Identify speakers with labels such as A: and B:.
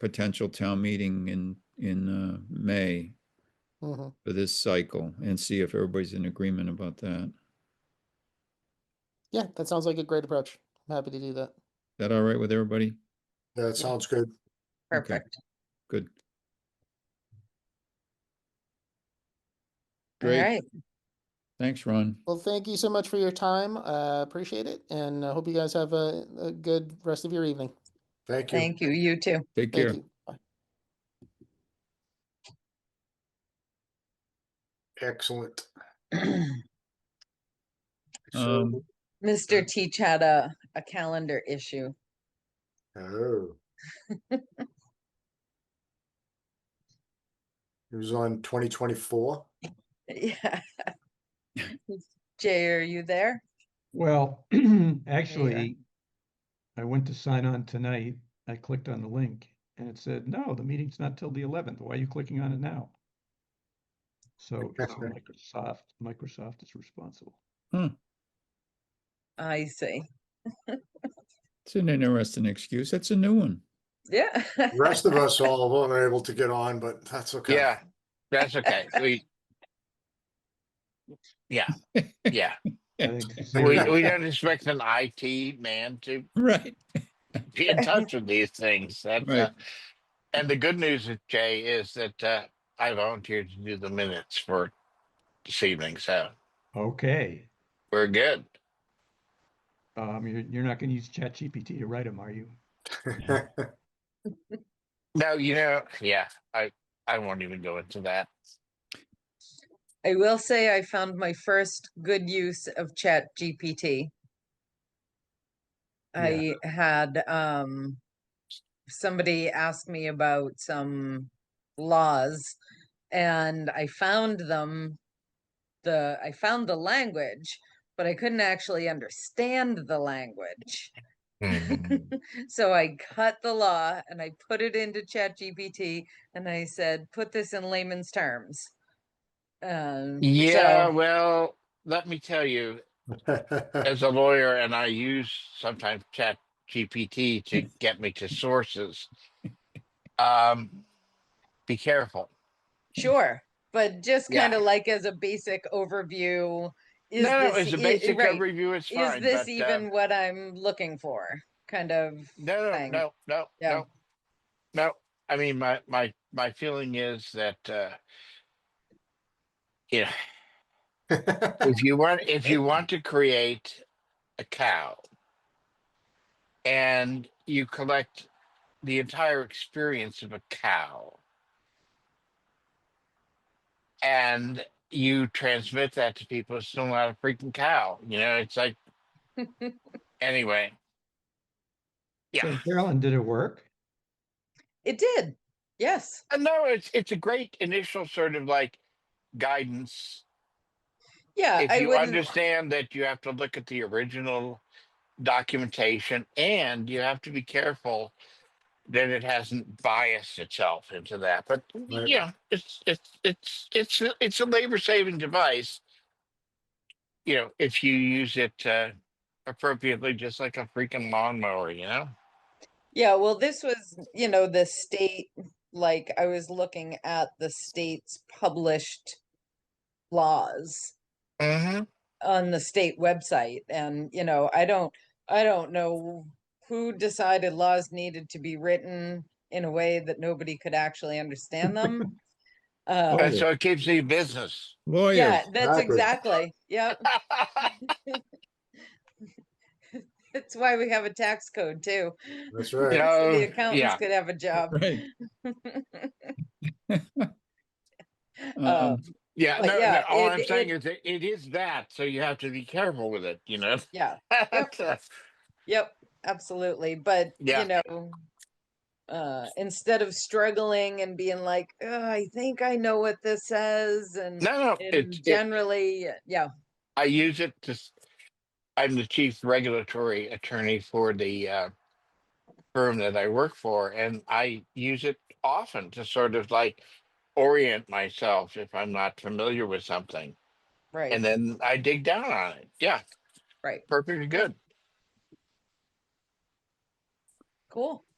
A: potential town meeting in, in uh, May
B: Mhm.
A: for this cycle and see if everybody's in agreement about that. Is
B: Yeah, that sounds like a great approach. I'm happy to do that.
A: that all right with everybody?
C: That sounds good.
D: Perfect.
A: Good.
D: All
A: Great.
D: right.
A: Thanks, Ron.
B: Well, thank you so much for your time. Uh, appreciate it. And I hope you guys have a, a good rest of your evening.
C: Thank you.
D: Thank you. You too.
A: Take
B: Thank
A: care.
B: you. Bye.
C: Excellent.
A: Um,
C: So-
D: Mr. Teach had a, a calendar issue.
C: Oh. It was on twenty twenty-four.
D: Yeah. Jay, are you there?
E: Well, actually, I went to sign on tonight. I clicked on the link and it said, no, the meeting's not till the eleventh. Why are you clicking on it now? So it's Microsoft, Microsoft is responsible.
D: I see.
A: It's an interesting excuse. That's a new one.
D: Yeah.
C: The Rest of us all weren't able to get on, but that's okay.
F: Yeah, that's okay. We. Yeah, yeah.
E: I think
F: We,
E: Zoom-
F: we don't expect an IT man to
A: Right.
F: be in touch with these things. That, uh,
A: Right.
F: and the good news, with Jay, is that uh, I volunteered to do the minutes for this evening, so
E: Okay,
F: we're good.
E: um, you're, you're not gonna use ChatGPT to write them, are you?
F: No, you know, yeah, I I won't even go into that.
D: I will say I found my first good use of Chat GPT. I
E: Yeah.
D: had um somebody ask me about some laws and I found them the I found the language, but I couldn't actually understand the language. So I cut the law and I put it into ChatGPT and I said, put this in layman's terms. Um,
F: yeah,
D: so-
F: well, let me tell you, as a lawyer and I use sometimes chat GPT to get me to sources. Um, be careful.
D: sure, but just
F: Yeah.
D: kind of like as a basic overview. Is
F: no, no,
D: this
F: it's a
D: e-
F: basic
D: right,
F: overview. It's fine.
D: Is this
F: but, uh,
D: even what I'm looking for? Kind of.
F: no, no,
D: thing?
F: no, no,
D: Yeah.
F: no, no. I mean, my my my feeling is that uh, you know, if you want if you want to create a cow and you collect the entire experience of a cow and you transmit that to people it's still not a freaking cow you know it's like anyway
E: So
F: yeah
E: Carolyn, did it work?
D: It did. Yes.
F: Uh, no it's it's a great initial sort of like guidance
D: Yeah.
F: if
D: Uh, I
F: you
D: wouldn't-
F: understand that you have to look at the original documentation and you have to be careful that it hasn't biased itself into that. But
C: Right.
F: yeah, it's it's it's it's a- it's a labor saving device. You know, if you use it uh, appropriately, just like a freaking lawnmower, you know.
D: Yeah, well, this was, you know, the state, like I was looking at the state's published laws
F: Mm-hmm.
D: on the state website and, you know, I don't, I don't know who decided laws needed to be written in a way that nobody could actually understand them. Uh,
F: so it keeps me business.
A: Lawyers.
D: yeah, that's
C: Exactly.
D: exactly, yep. That's why we have a tax code too.
C: That's
D: so
C: right.
F: Oh,
D: The accountants
F: yeah.
D: could have a job.
A: Right.
D: Uh, Oh.
F: Uh-uh.
A: Um,
F: yeah,
D: But
F: no,
D: yeah,
F: no, all
D: it-
F: I'm saying
D: it-
F: is that it is that, so you have to be careful with it, you know.
D: Yeah, yep, absolutely. But
F: Yeah.
D: you know, uh, instead of struggling and being like, "Ugh, I think I know what this says, and,
F: No, no,
D: and
F: it, it,
D: generally, yeah,
F: I use it to. s- I'm the chief regulatory attorney for the uh, firm that I work for, and I use it often to sort of like orient myself if I'm not familiar with something,
D: right,
F: and then I dig down on it. Yeah,
D: right,
F: perfectly good.
D: cool.